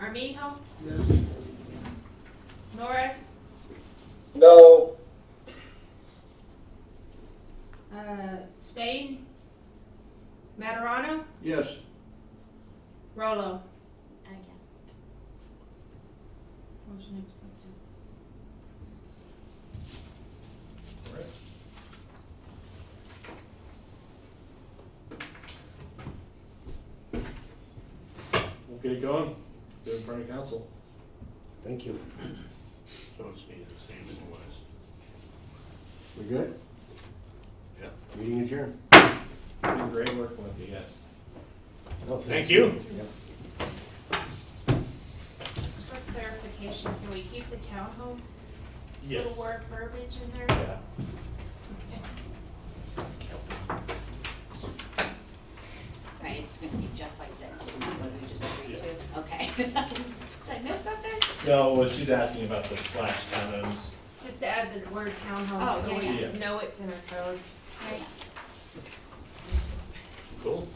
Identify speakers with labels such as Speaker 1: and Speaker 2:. Speaker 1: Armijo,
Speaker 2: Yes.
Speaker 1: Norris,
Speaker 3: No.
Speaker 1: uh, Spain, Materano,
Speaker 2: Yes.
Speaker 1: Rolo.
Speaker 4: I guess.
Speaker 1: Motion accepted.
Speaker 5: We'll get it going. Get it in front of council.
Speaker 6: Thank you.
Speaker 7: So it's the same as it was.
Speaker 6: We good?
Speaker 7: Yeah.
Speaker 6: Meeting adjourned.
Speaker 5: It's been great working with you, yes.
Speaker 6: No,
Speaker 7: Thank you.
Speaker 6: Yep.
Speaker 1: Just for clarification, can we keep the townhome little
Speaker 5: Yes.
Speaker 1: word verbiage in there?
Speaker 5: Yeah.
Speaker 4: Right, it's gonna be just like this, what we just agreed
Speaker 5: Yes.
Speaker 4: to, okay. Did I miss something?
Speaker 5: No, well, she's asking about the slash townhomes.
Speaker 1: Just to add the word townhome,
Speaker 4: Oh,
Speaker 1: so
Speaker 4: yeah,
Speaker 5: yeah.
Speaker 1: we know it's in our code.
Speaker 4: Yeah.
Speaker 7: Cool.